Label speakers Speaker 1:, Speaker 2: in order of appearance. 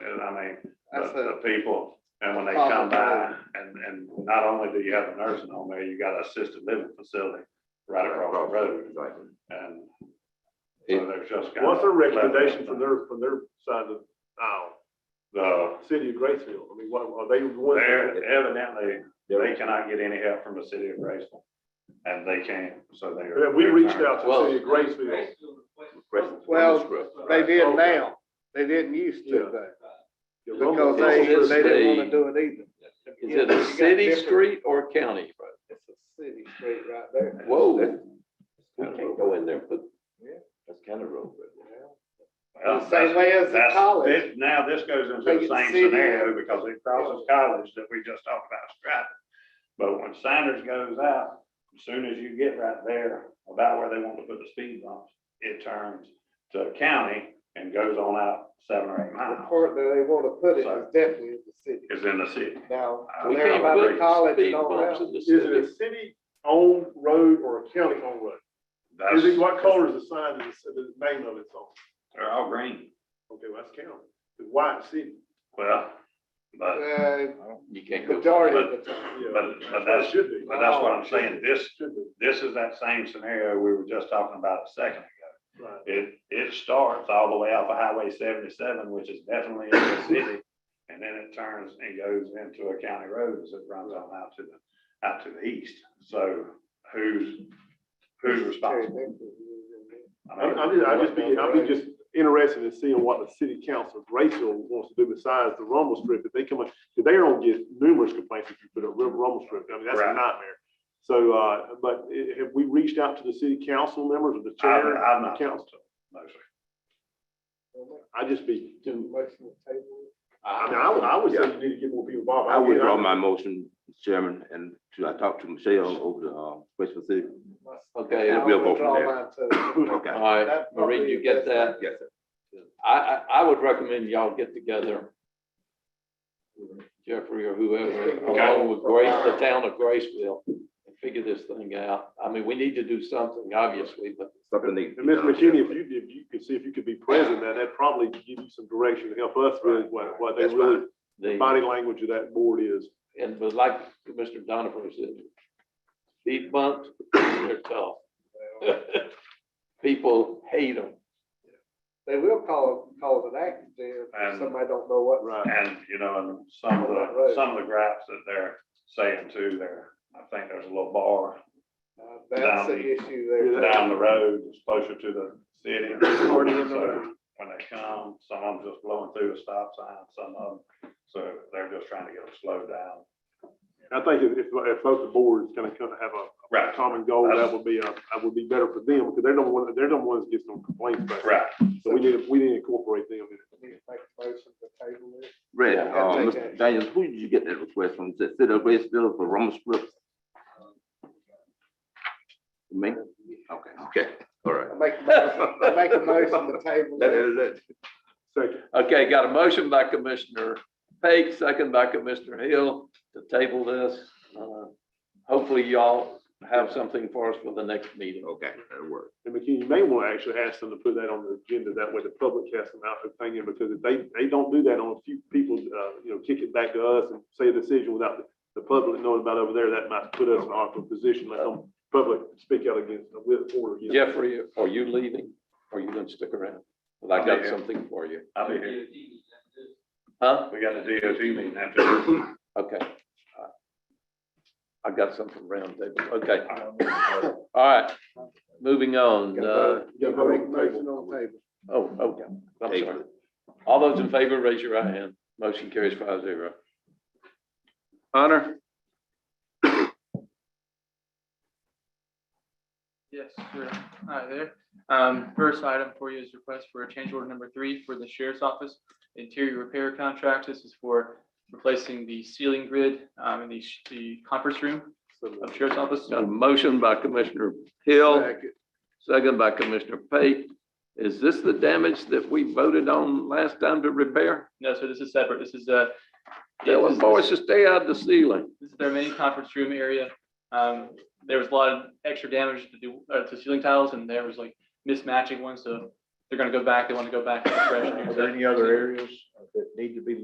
Speaker 1: I mean,
Speaker 2: That's
Speaker 1: the,
Speaker 3: uh,
Speaker 2: a,
Speaker 1: the people, and when they come by, and, and not only do you have a nursing home there, you got an assisted living facility right across the road,
Speaker 4: Exactly.
Speaker 1: and so they're just kind of.
Speaker 5: What's their recommendation from their, from their side of the aisle,
Speaker 1: The,
Speaker 5: city of Graceville? I mean, what, are they the ones? that-
Speaker 1: they're evidently, they
Speaker 4: They're-
Speaker 1: cannot get any help from the city of Graceville, and they can't, so they are.
Speaker 5: Yeah, We reached out to the
Speaker 4: Well-
Speaker 5: city of Graceville.
Speaker 4: Graceville's
Speaker 2: Well,
Speaker 4: Wellness Group.
Speaker 2: they did
Speaker 5: Okay.
Speaker 2: now, they didn't used
Speaker 5: Yeah.
Speaker 2: to though,
Speaker 5: Yeah,
Speaker 2: because
Speaker 5: Rumble-
Speaker 2: they,
Speaker 5: Rumble-
Speaker 2: they didn't wanna
Speaker 3: the-
Speaker 2: do it either.
Speaker 3: Is it a
Speaker 2: You got
Speaker 3: city
Speaker 2: different-
Speaker 3: street or a county road?
Speaker 2: It's a city street right there.
Speaker 3: Whoa. We can't go in there, but that's kind of road.
Speaker 2: The same way as the
Speaker 1: That's-
Speaker 2: college.
Speaker 1: this- Now, this goes into
Speaker 2: Make
Speaker 1: the
Speaker 2: it
Speaker 1: same
Speaker 2: city.
Speaker 1: scenario because it crosses college that we just talked about striping. But when Sanders goes out, as soon as you get right there about where they want to put the speed bumps, it turns to county and goes on out seven or eight
Speaker 2: The
Speaker 1: miles.
Speaker 2: part that they wanna put it is definitely in the city.
Speaker 1: Is in the city.
Speaker 2: Now,
Speaker 3: Uh, We
Speaker 2: when
Speaker 1: They're
Speaker 3: can't
Speaker 2: about the
Speaker 3: put
Speaker 2: college
Speaker 3: speed
Speaker 2: and all
Speaker 3: bumps in
Speaker 2: that,
Speaker 3: the
Speaker 5: Is it
Speaker 3: city.
Speaker 5: a city-owned road or a county-owned road? Is it,
Speaker 1: That's,
Speaker 5: what color is the sign, that it's- the name of it's on?
Speaker 1: they're all green.
Speaker 5: Okay, well, that's county. It's white city.
Speaker 1: Well, but,
Speaker 2: uh,
Speaker 3: You can't go.
Speaker 2: majority of the time.
Speaker 5: Yeah,
Speaker 1: But- but
Speaker 5: what it
Speaker 1: that's-
Speaker 5: Should be.
Speaker 1: but that's what I'm saying. This,
Speaker 5: Should be,
Speaker 1: this is that same scenario we were just talking about a second ago.
Speaker 5: right.
Speaker 1: It, it starts all the way off of Highway seventy-seven, which is definitely in the city. And then it turns and goes into a county road as it runs on out to the, out to the east. So who's, who's responsible? I
Speaker 5: I'm,
Speaker 1: mean,
Speaker 5: I'm just, i just be, I'll be just interested in seeing what the city council of Graceville wants to do besides the rumble strip. If they come, up- if they don't get numerous complaints if you put a rum- rumble strip, I mean, that's a
Speaker 1: Right.
Speaker 5: nightmare. So, uh, but i- have we reached out to the city council members or the
Speaker 1: I've,
Speaker 5: chair?
Speaker 1: I've not
Speaker 5: Council.
Speaker 1: talked to them, no, sir.
Speaker 5: I'd just be, I mean,
Speaker 2: Motion to table.
Speaker 5: I would, I would say you need to get more people involved.
Speaker 4: I
Speaker 5: would.
Speaker 4: withdraw my motion, Mr. Chairman, and to, I talked to Michelle over the, uh, Graceville City.
Speaker 3: Okay,
Speaker 4: Yeah,
Speaker 2: I'll
Speaker 4: we'll go
Speaker 2: withdraw
Speaker 4: from there.
Speaker 2: mine too.
Speaker 4: Okay.
Speaker 3: all right,
Speaker 2: That's probably
Speaker 3: Marie, you
Speaker 2: the
Speaker 3: get
Speaker 2: best
Speaker 3: that?
Speaker 4: Yes, sir.
Speaker 3: I, I, I would recommend y'all get together. Jeffrey or whoever, along with Grace, the town of Graceville, and figure this thing out. I mean, we need to do something, obviously, but
Speaker 4: Something they.
Speaker 5: And Ms. McKinney, if you, if you could see if you could be present, then that'd probably give you some direction to help us with what, what they
Speaker 4: That's
Speaker 5: really,
Speaker 3: the.
Speaker 5: body language of that board is.
Speaker 3: And but like Commissioner Donovan said, speed bumps, they're tough. People hate them.
Speaker 2: They will call, cause an accident if
Speaker 1: And-
Speaker 2: somebody don't know what.
Speaker 5: Right.
Speaker 1: And, you know, and some of the, some of the gripes that they're saying too, there, I think there's a little bar
Speaker 2: Uh, That's the issue there.
Speaker 1: down the road, it's closer to the city. So When they come, some of them just blowing through a stop sign, some of them, so they're just trying to get them slowed down.
Speaker 5: I think if, if, if both the boards kind of kind of have a
Speaker 1: Right,
Speaker 5: common goal, that would be, uh, that would be better for them, because they're the one, they're the ones that gets no complaints back.
Speaker 1: right.
Speaker 5: So we need, to- we need to incorporate them in it.
Speaker 2: Need to Make a motion to table it.
Speaker 4: Red,
Speaker 3: Yeah,
Speaker 4: uh,
Speaker 2: take
Speaker 4: Mr.
Speaker 2: action.
Speaker 4: Daniels, who did you get that request from? Is it City of Graceville for Rumble Strip? Me? Okay, okay, all right.
Speaker 2: I make, a motion- I make a motion to table
Speaker 4: That
Speaker 2: it.
Speaker 4: is it.
Speaker 5: Second,
Speaker 3: Okay, got a motion by Commissioner Pate, second by Commissioner Hill to table this. Uh, Hopefully y'all have something for us for the next meeting.
Speaker 4: Okay, that'll work.
Speaker 5: and McKinney, you may want to actually ask them to put that on the agenda, that way the public has some out thing in, because if they, they don't do that on a few people, uh, you know, kick it back to us and say a decision without the, the public knowing about over there, that might put us in an awkward position, let them public speak out against, with, or. against.
Speaker 3: Jeffrey, are you leaving? Or you gonna stick around? Well, I got something for you.
Speaker 1: I'll be here.
Speaker 3: Huh?
Speaker 1: We got a DOT meeting after.
Speaker 3: Okay. I got something round table. Okay, all right. Moving on. Uh,
Speaker 5: Yeah,
Speaker 2: Make a
Speaker 5: vote on the table.
Speaker 2: motion on the table.
Speaker 3: Oh, okay, I'm
Speaker 4: Table
Speaker 3: sorry. All those in favor, raise your right hand. Motion carries five zero. Honor?
Speaker 6: Yes, sure. Hi there. Um, first item for you is request for a change order number three for the sheriff's office interior repair contract. This is for replacing the ceiling grid, um, in the, sh- the conference room of sheriff's office.
Speaker 3: Got a motion by Commissioner Hill,
Speaker 2: Second.
Speaker 3: second by Commissioner Pate. Is this the damage that we voted on last time to repair?
Speaker 6: No, so this is separate. This is, uh,
Speaker 3: Tell them boys to stay out the ceiling.
Speaker 6: This is their main conference room area. Um, there was a lot of extra damage to do, uh, to ceiling tiles and there was like mismatching ones, so they're gonna go back. They want to go back and refresh. and do that.
Speaker 1: other areas that need to be